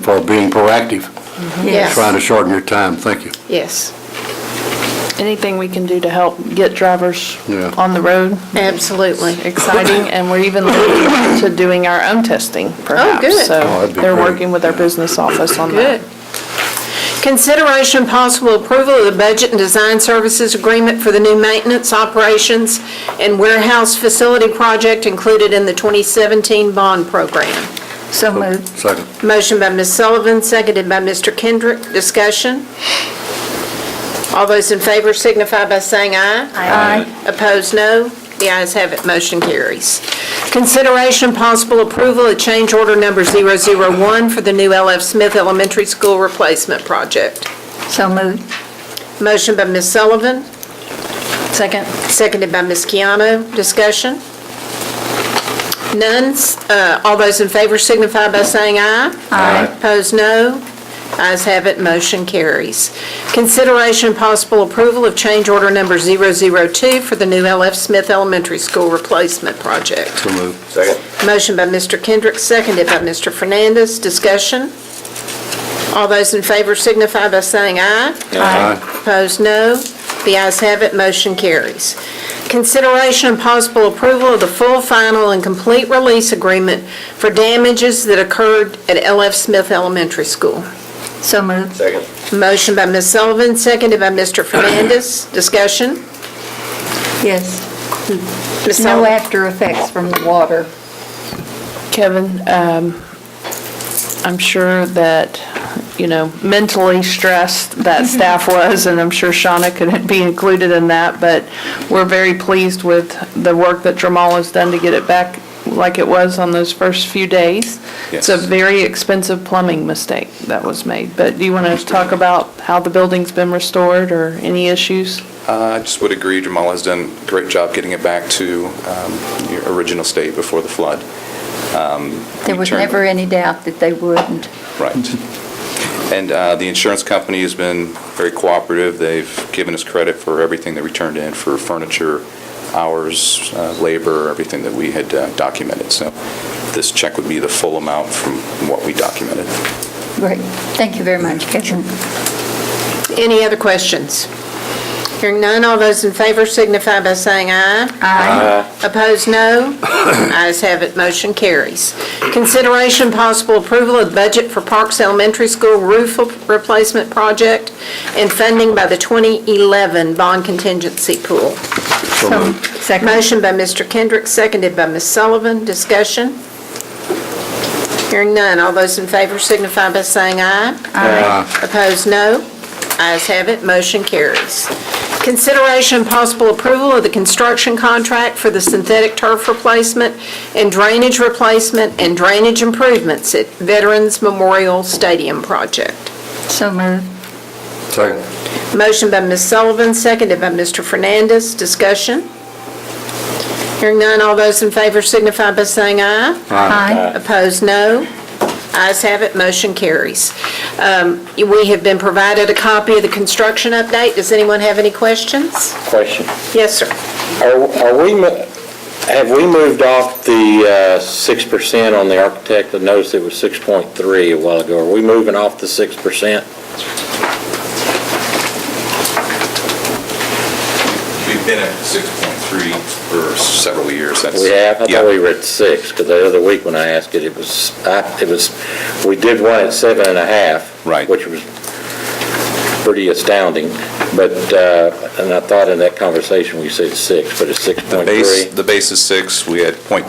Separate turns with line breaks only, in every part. for being proactive, trying to
Yes,
shorten your time. Thank you.
yes,
Anything we can do to help get drivers
Yeah.
on the road,
absolutely.
exciting, and we're even looking to doing our own testing, perhaps.
good.
Oh,
So
that'd be
they're
great.
working with our business office on
Good.
that.
Consideration and possible approval of the Budget and Design Services Agreement for the new maintenance operations and warehouse facility project included in the 2017 bond program.
So moved.
Second.
Motion by Ms. Sullivan, seconded by Mr. Kendrick. Discussion? All those in favor signify by saying aye.
Aye.
Opposed, no. The ayes have it, motion carries. Consideration possible approval of change order number 001 for the new L.F. Smith Elementary School Replacement Project.
So moved.
Motion by Ms. Sullivan,
Second.
seconded by Ms. Keano. Discussion? None. Uh, All those in favor signify by saying aye.
Aye.
Opposed, no. Ayes have it, motion carries. Consideration and possible approval of change order number 002 for the new L.F. Smith Elementary School Replacement Project.
So moved.
Second.
Motion by Mr. Kendrick, seconded by Mr. Fernandez. Discussion? All those in favor signify by saying aye.
Aye.
Opposed, no. The ayes have it, motion carries. Consideration and possible approval of the full, final, and complete release agreement for damages that occurred at L.F. Smith Elementary School.
So moved.
Second.
Motion by Ms. Sullivan, seconded by Mr. Fernandez. Discussion?
Yes.
Ms.
No
Sullivan?
after effects from the water.
Kevin, um, I'm sure that, you know, mentally stressed that staff was, and I'm sure Shauna could be included in that, but we're very pleased with the work that Dramal has done to get it back like it was on those first few days. It's a
Yes.
very expensive plumbing mistake that was made, but do you want to talk about how the building's been restored or any issues?
Uh, I just would agree, Jamal has done a great job getting it back to um, your original state before the flood. Um,
There was
Turn-
never any doubt that they wouldn't.
Right. And uh, the insurance company has been very cooperative. They've given us credit for everything that we turned in, for furniture, hours, uh, labor, everything that we had uh, documented. So this check would be the full amount from what we documented.
Great. Thank you very much, Kevin.
Any other questions? Hearing none, all those in favor signify by saying aye.
Aye.
Opposed, no. Ayes have it, motion carries. Consideration possible approval of budget for Parks Elementary School roof replacement project and funding by the 2011 bond contingency pool.
So
So
moved.
Second.
Motion by Mr. Kendrick, seconded by Ms. Sullivan. Discussion? Hearing none. All those in favor signify by saying aye.
Aye.
Opposed, no. Ayes have it, motion carries. Consideration and possible approval of the construction contract for the synthetic turf replacement and drainage replacement and drainage improvements at Veterans Memorial Stadium Project.
So moved.
Second.
Motion by Ms. Sullivan, seconded by Mr. Fernandez. Discussion? Hearing none, all those in favor signify by saying aye.
Aye.
Opposed, no. Ayes have it, motion carries. Um, We have been provided a copy of the construction update. Does anyone have any questions?
Question.
Yes, sir.
Are are we, mo- have we moved off the uh, 6% on the architect? I noticed it was 6.3 a while ago. Are we moving off the 6%?
We've been at 6.3 for several years. That's-
We have? I
Yeah.
thought we were at 6, because the other week when I asked it, it was, I- it was, we did one at seven and a half,
Right.
Which was pretty astounding, but, uh, and I thought in that conversation we said 6, but it's 6.3.
The base, the base is six, we had .2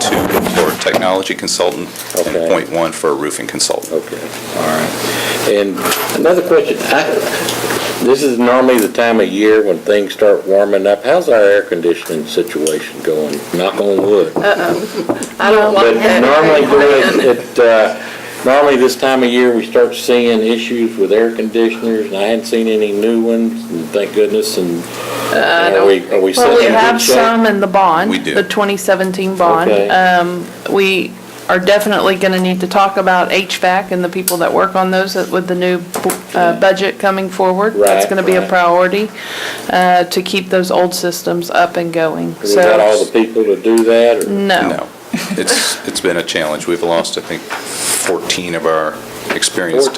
for a technology consultant and
Okay. Oh.
.1 for a roofing consultant.
Okay, all right. And another question, I, this is normally the time of year when things start warming up. How's our air conditioning situation going? Knock on wood.
I don't
But normally during, it, uh, normally this time of year, we start seeing issues with air conditioners, and I hadn't seen any new ones, and thank goodness, and are we, are we
Uh, Well,
set
we
in good
have
shape?
some in the bond.
We do.
The 2017 bond.
Okay.
Um, We are definitely going to need to talk about HVAC and the people that work on those with the new uh, budget coming forward. That's
Right,
going to be a
right.
priority uh, to keep those old systems up and going.
We got all the
So,
people to do that, or?
no.
No, it's, it's been a challenge. We've lost, I think, 14 of our experienced